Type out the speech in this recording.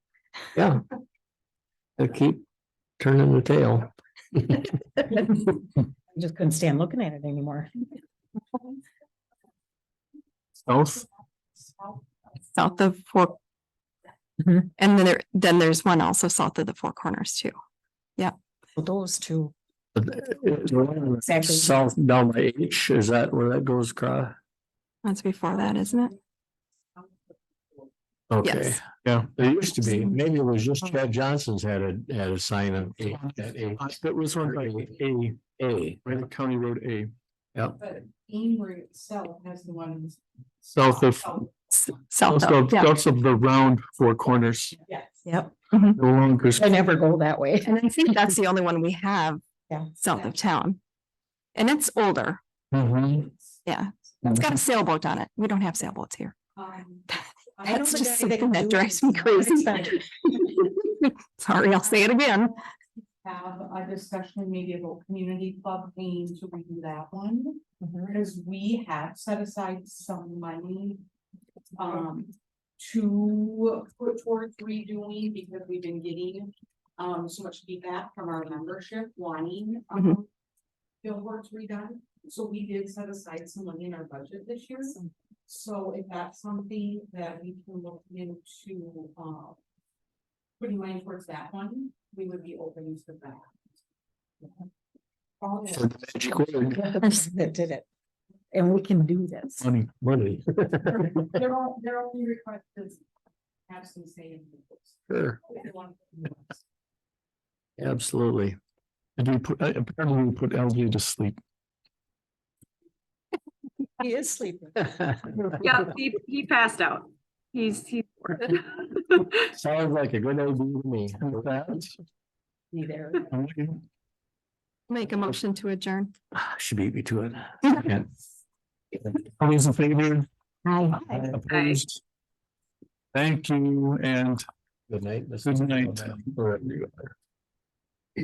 Yeah. They keep turning the tail. I just couldn't stand looking at it anymore. South, south of Four. Mhm. And then there, then there's one also south of the Four Corners too. Well, Those two, Exactly. south down by H, is that where that goes across? That's before that, isn't it? Okay, Yes. Oh. yeah, there used to be, maybe it was just Chad Johnson's had a, had a sign of H, at H. Uh, That was one by A, A. by the County Road A, But Amory itself has the ones. Oh, south of, S- South south of, of, Oh, yeah. south of the round four corners. Yes. yep, No longer, I never go that way. And I think that's the only one we have Yeah. south of town. And it's older. Mhm. Um, Yeah. It's got a sailboat on it. We don't don't have sailboats here. Um, I don't That's think just I- they something do that drives it. me crazy. Expensive. Sorry, I'll say it again. Have a discussion maybe about community club paying to redo that one, Mm-hmm. because we have set aside some money. Um, to put towards redoing because we've been getting, um, so much feedback from our membership wanting, Mm-hmm. um. Billboards redone, so we did set aside some money in our budget this year. So if that's something that we can look into, uh. Putting money towards that one, we would be open to that. All For the magic word, That did it. And we can do this. money, money. They're all, they're only request is have some say in the books. Sure, If they want to do this. absolutely. and we put, uh, apparently we put LG to sleep. He is sleeping. Yeah, he, he passed out. He's, he's. Sounds like a good idea to me. With that, He there. I'm looking- Make a motion to adjourn. Ah, She beat me to it. yeah. All those in favor? Opposed? Thank you and Good night. Good night. Or everywhere.